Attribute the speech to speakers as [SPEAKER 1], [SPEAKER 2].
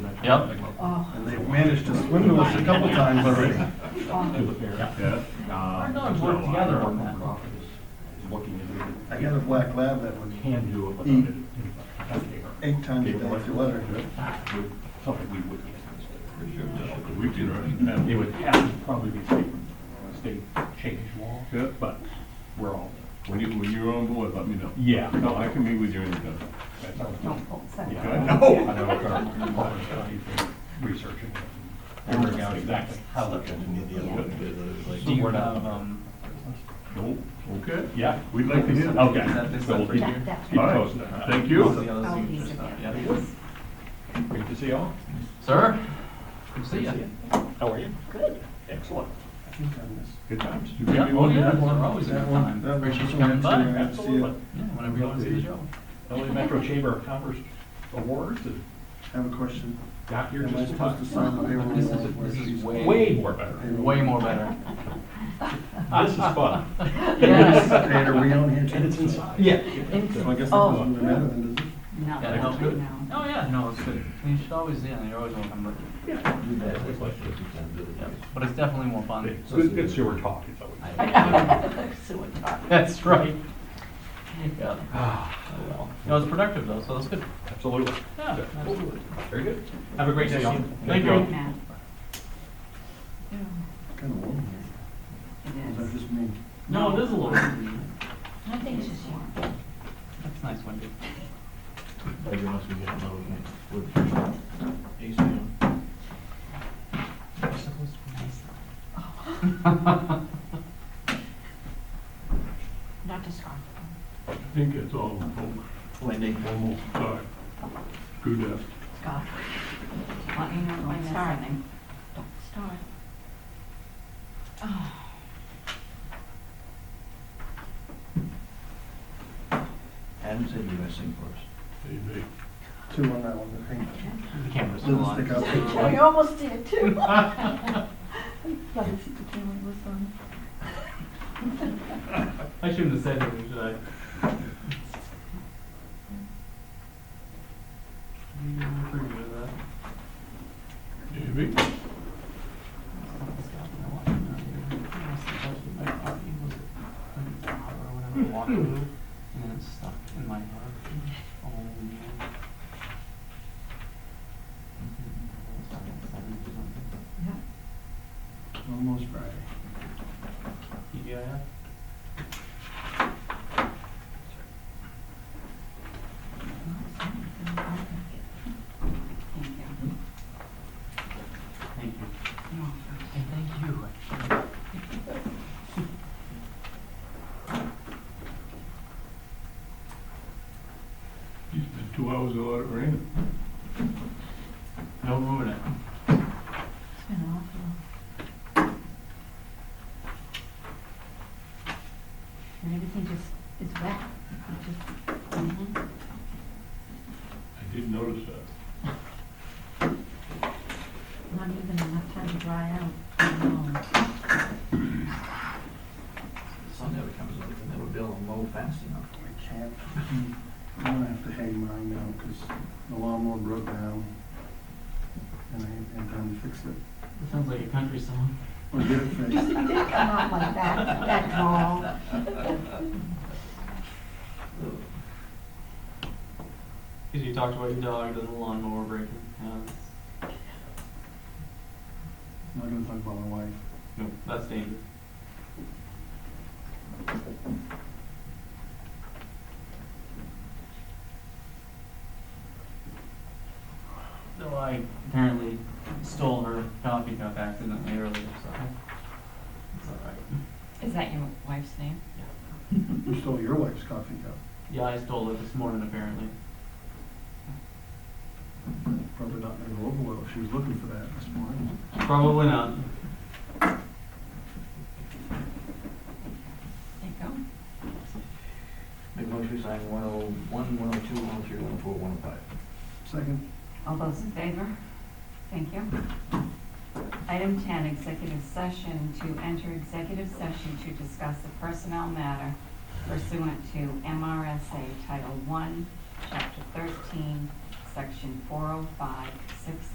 [SPEAKER 1] Yep.
[SPEAKER 2] Oh,
[SPEAKER 3] And they've managed to swindle us a couple times already.
[SPEAKER 2] oh.
[SPEAKER 4] Yeah.
[SPEAKER 1] Our dogs work together on that.
[SPEAKER 3] I got a black lab that would
[SPEAKER 4] Can do it without
[SPEAKER 3] Eat.
[SPEAKER 4] it.
[SPEAKER 3] eight times a day if you let her.
[SPEAKER 4] Something we would get. We do, right? It would have to probably be state, state change law,
[SPEAKER 5] Yeah,
[SPEAKER 4] but we're all,
[SPEAKER 5] when you, when you're on board, let me know.
[SPEAKER 4] yeah.
[SPEAKER 5] No, I can meet with you anytime.
[SPEAKER 4] That sounds good.
[SPEAKER 2] Don't
[SPEAKER 3] Oh,
[SPEAKER 2] pull, sorry.
[SPEAKER 4] Yeah,
[SPEAKER 5] Okay.
[SPEAKER 4] I know, I know, our Orange County's been researching it, figuring out exactly how to
[SPEAKER 1] Do you have, um,
[SPEAKER 5] No, okay.
[SPEAKER 4] Yeah,
[SPEAKER 5] We'd like to hear.
[SPEAKER 4] okay.
[SPEAKER 1] That is
[SPEAKER 4] So we'll
[SPEAKER 1] not
[SPEAKER 4] keep-
[SPEAKER 1] for
[SPEAKER 2] That, that.
[SPEAKER 4] Keep
[SPEAKER 5] All right.
[SPEAKER 4] posted.
[SPEAKER 5] Thank
[SPEAKER 1] both of
[SPEAKER 5] you.
[SPEAKER 1] the others?
[SPEAKER 2] I'll
[SPEAKER 1] you
[SPEAKER 2] use
[SPEAKER 1] just
[SPEAKER 2] it,
[SPEAKER 1] not-
[SPEAKER 2] Oh, yeah,
[SPEAKER 1] yeah.
[SPEAKER 2] please.
[SPEAKER 4] Great to see you all.
[SPEAKER 1] Sir, good to see ya.
[SPEAKER 4] How are you? Good. Excellent. Good times.
[SPEAKER 5] You
[SPEAKER 1] Yeah,
[SPEAKER 5] give me
[SPEAKER 1] oh,
[SPEAKER 5] one
[SPEAKER 1] yeah,
[SPEAKER 5] more?
[SPEAKER 1] they're always a
[SPEAKER 3] That
[SPEAKER 1] good
[SPEAKER 3] one-
[SPEAKER 1] time.
[SPEAKER 3] that one-
[SPEAKER 1] Appreciate you coming by.
[SPEAKER 3] Yeah, I see
[SPEAKER 4] Absolutely.
[SPEAKER 3] it.
[SPEAKER 1] Yeah, whenever you want to see the show.
[SPEAKER 4] LA Metro Chamber of Commerce Awards and
[SPEAKER 3] I have a question.
[SPEAKER 4] got here
[SPEAKER 3] Am I
[SPEAKER 4] just in
[SPEAKER 3] supposed to
[SPEAKER 4] time.
[SPEAKER 3] sign the payroll
[SPEAKER 1] This
[SPEAKER 3] warrant
[SPEAKER 1] is,
[SPEAKER 3] where
[SPEAKER 1] this is
[SPEAKER 3] she's-
[SPEAKER 1] way,
[SPEAKER 4] Way
[SPEAKER 1] way,
[SPEAKER 4] more better.
[SPEAKER 1] more better.
[SPEAKER 4] This is fun.
[SPEAKER 1] Yes.
[SPEAKER 3] Hey, are we on here too?
[SPEAKER 4] And it's inside.
[SPEAKER 1] Yeah.
[SPEAKER 3] So I guess that
[SPEAKER 2] Oh.
[SPEAKER 3] doesn't really matter then, does it?
[SPEAKER 2] No,
[SPEAKER 1] That helps
[SPEAKER 2] no,
[SPEAKER 1] good.
[SPEAKER 2] no.
[SPEAKER 1] Oh, yeah, no, it's good. You should always, yeah, you're always welcome, but, yeah, but it's definitely more fun.
[SPEAKER 4] Good, good sewer talk, it's always.
[SPEAKER 2] So we're talking.
[SPEAKER 1] That's right. Yeah. No, it's productive though, so that's good.
[SPEAKER 4] Absolutely.
[SPEAKER 1] Yeah, absolutely.
[SPEAKER 4] Very good. Have a great day, y'all.
[SPEAKER 1] Thank you.
[SPEAKER 2] Right now. Yeah,
[SPEAKER 3] Kind of warm here.
[SPEAKER 2] It
[SPEAKER 3] Is that
[SPEAKER 2] is.
[SPEAKER 3] just me?
[SPEAKER 1] No, it is a little,
[SPEAKER 2] I think it's just warm.
[SPEAKER 1] that's nice, Wendy.
[SPEAKER 2] It's supposed to be nice. Not to scarf.
[SPEAKER 5] I think it's all over.
[SPEAKER 1] Wendy.
[SPEAKER 5] Almost dark. Good afternoon.
[SPEAKER 2] Scarf. Let me know when it's starting. Don't start. Oh.
[SPEAKER 6] Adam said you were missing for
[SPEAKER 5] Amen.
[SPEAKER 3] Two on that one, I think.
[SPEAKER 1] The camera's still
[SPEAKER 3] Doesn't
[SPEAKER 1] on.
[SPEAKER 3] stick out.
[SPEAKER 2] Oh, you almost did too. Let me see the camera was on.
[SPEAKER 1] I shouldn't have said anything, should I?
[SPEAKER 5] Amen.
[SPEAKER 1] And then it's stuck in my heart. Oh, man.
[SPEAKER 3] Almost Friday.
[SPEAKER 1] TGIF?
[SPEAKER 2] Thank you.
[SPEAKER 1] Thank you.
[SPEAKER 2] You're welcome.
[SPEAKER 1] And thank you.
[SPEAKER 5] It's been two hours without it raining.
[SPEAKER 1] No room in it.
[SPEAKER 2] It's been awful. And everything just is wet. It just- mhm.
[SPEAKER 5] I did notice that.
[SPEAKER 2] Not even enough time to dry out. No.
[SPEAKER 6] the sun never comes up, and they were building low fast enough.
[SPEAKER 3] I can't. I'm gonna have to hang mine now because the lawnmower broke down and I ain't had time to fix it.
[SPEAKER 1] That sounds like a country song.
[SPEAKER 3] Or get it fixed.
[SPEAKER 2] It did come out like that, that tall.
[SPEAKER 1] Because you talked about your dog and the lawnmower breaking. Yeah, that's-
[SPEAKER 3] I'm not gonna talk about my wife.
[SPEAKER 1] No, that's dangerous. So I apparently stole her coffee cup accidentally earlier, so it's all right.
[SPEAKER 7] Is that your wife's name?
[SPEAKER 3] You stole your wife's coffee cup.
[SPEAKER 1] Yeah, I stole it this morning apparently.
[SPEAKER 3] Probably not gonna go over well. She was looking for that this morning.
[SPEAKER 1] Probably not.
[SPEAKER 7] There you go.
[SPEAKER 6] Make motion to sign one oh one, one oh two, one oh three, one oh four, one oh five.
[SPEAKER 3] Second,
[SPEAKER 7] All those in favor? Thank you. Item 10, executive session, to enter executive session to discuss a personnel matter pursuant to MRSA oh Title I, Chapter 13, Section 405, 6